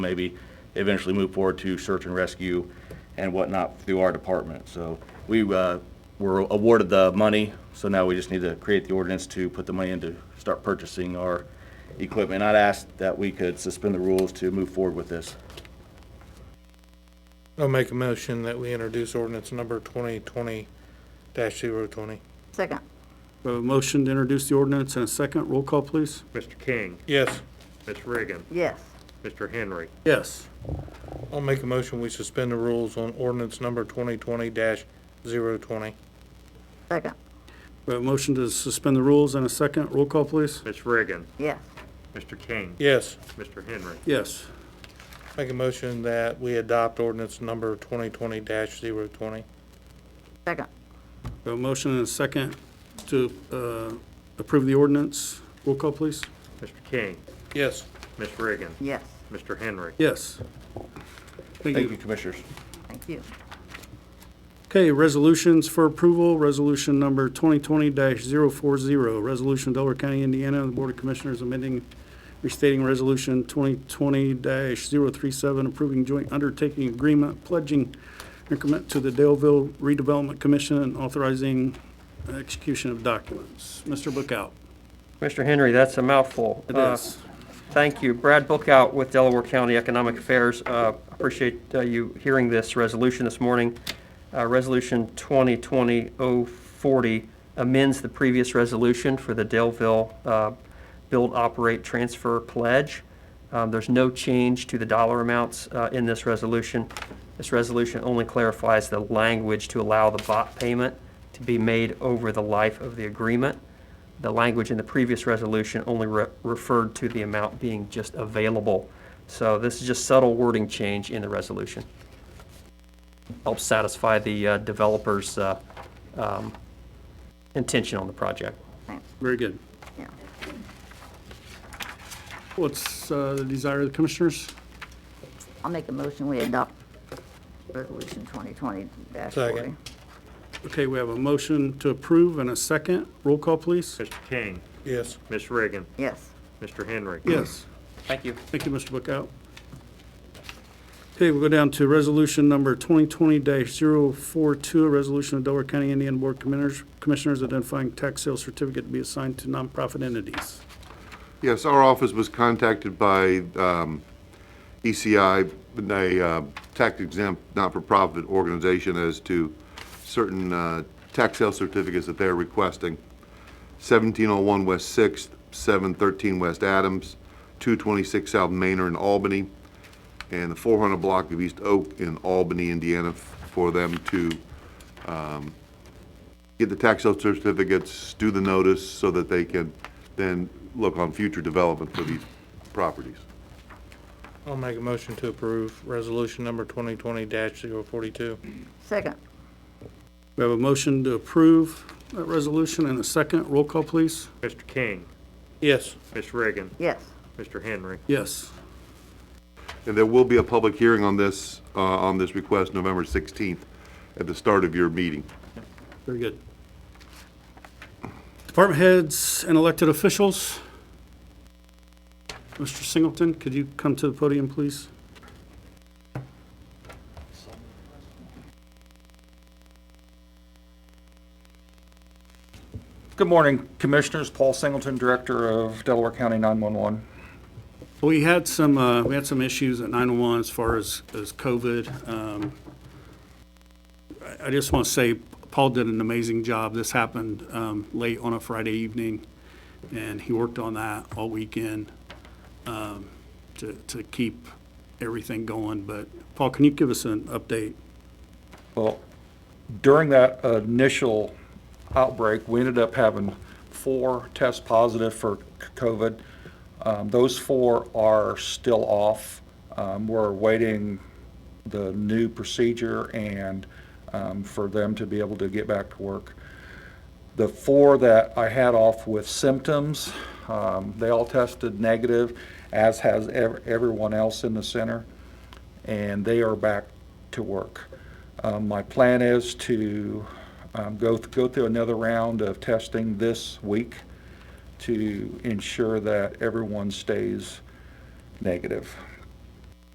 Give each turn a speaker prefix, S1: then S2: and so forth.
S1: maybe eventually move forward to search and rescue and whatnot through our department. So we uh, were awarded the money, so now we just need to create the ordinance to put the money in to start purchasing our equipment. I'd ask that we could suspend the rules to move forward with this.
S2: I'll make a motion that we introduce ordinance number twenty twenty dash zero twenty.
S3: Second,
S4: We have a motion to introduce the ordinance and a second. Roll call, please.
S5: Mr. King,
S2: Yes,
S5: Ms. Reagan,
S3: yes.
S5: Mr. Henry,
S4: Yes.
S2: I'll make a motion we suspend the rules on ordinance number twenty twenty dash zero twenty.
S3: Second,
S4: We have a motion to suspend the rules and a second. Roll call, please.
S5: Ms. Reagan,
S3: yes.
S5: Mr. King,
S2: Yes,
S5: Mr. Henry,
S4: Yes.
S2: make a motion that we adopt ordinance number twenty twenty dash zero twenty.
S3: Second,
S4: We have a motion and a second to uh, approve the ordinance. Roll call, please.
S5: Mr. King,
S2: Yes,
S5: Ms. Reagan,
S3: yes.
S5: Mr. Henry.
S4: Yes. Thank
S1: Thank you,
S4: you.
S1: Commissioners.
S3: Thank you.
S4: Okay, resolutions for approval. Resolution number 2020-040, resolution Delaware County, Indiana, the Board of Commissioners amending, restating Resolution 2020-037, approving joint undertaking agreement, pledging increment to the Daleville Redevelopment Commission, and authorizing execution of documents. Mr. Bookout.
S6: Mr. Henry, that's a mouthful.
S4: It
S6: Uh,
S4: is.
S6: Thank you. Brad Bookout with Delaware County Economic Affairs. Uh, Appreciate uh, you hearing this resolution this morning. Uh, Resolution 2020-040 amends the previous resolution for the Delville uh, Build, Operate, Transfer Pledge. Um, There's no change to the dollar amounts uh, in this resolution. This resolution only clarifies the language to allow the bot payment to be made over the life of the agreement. The language in the previous resolution only re- referred to the amount being just available. So this is just subtle wording change in the resolution. Helps satisfy the uh, developer's uh, um, intention on the project.
S4: Very good.
S3: Yeah.
S4: What's uh, the desire of the commissioners?
S3: I'll make a motion, we adopt resolution twenty twenty dash forty.
S2: Second.
S4: Okay, we have a motion to approve and a second. Roll call, please.
S5: Mr. King,
S2: yes,
S5: Ms. Reagan,
S3: Yes,
S5: Mr. Henry.
S4: Yes.
S6: Thank you.
S4: Thank you, Mr. Bookout. Okay, we'll go down to resolution number 2020-042, a resolution of Delaware County, Indiana Board of Commissioners- Commissioners identifying tax sale certificate to be assigned to nonprofit entities.
S7: Yes, our office was contacted by um, ECI, a uh, tax exempt, not-for-profit organization as to certain uh, tax sale certificates that they're requesting. 1701 West Sixth, 713 West Adams, 226 South Manor in Albany, and the 400 block of East Oak in Albany, Indiana, f- for them to get the tax sale certificates, do the notice so that they can then look on future development for these properties.
S2: I'll make a motion to approve resolution number twenty twenty dash zero forty-two.
S3: second,
S4: We have a motion to approve that resolution and a second. Roll call, please.
S5: Mr. King,
S2: Yes,
S5: Ms. Reagan,
S3: yes,
S5: Mr. Henry.
S4: Yes.
S7: And there will be a public hearing on this, uh, on this request November 16th at the start of your meeting.
S4: Very good. Department heads and elected officials. Mr. Singleton, could you come to the podium, please?
S8: Good morning, Commissioners. Paul Singleton, Director of Delaware County 911.
S4: We had some, uh, we had some issues at 911 as far as, as COVID. Um, I I just want to say Paul did an amazing job. This happened um, late on a Friday evening, and he worked on that all weekend um, to, to keep everything going. But Paul, can you give us an update?
S8: Well, during that initial outbreak, we ended up having four tests positive for c- COVID. Um, Those four are still off. Um, We're awaiting the new procedure and um, for them to be able to get back to work. The four that I had off with symptoms, um, they all tested negative, as has ev- everyone else in the center, and they are back to work. Um, My plan is to um, go, th- go through another round of testing this week to ensure that everyone stays negative.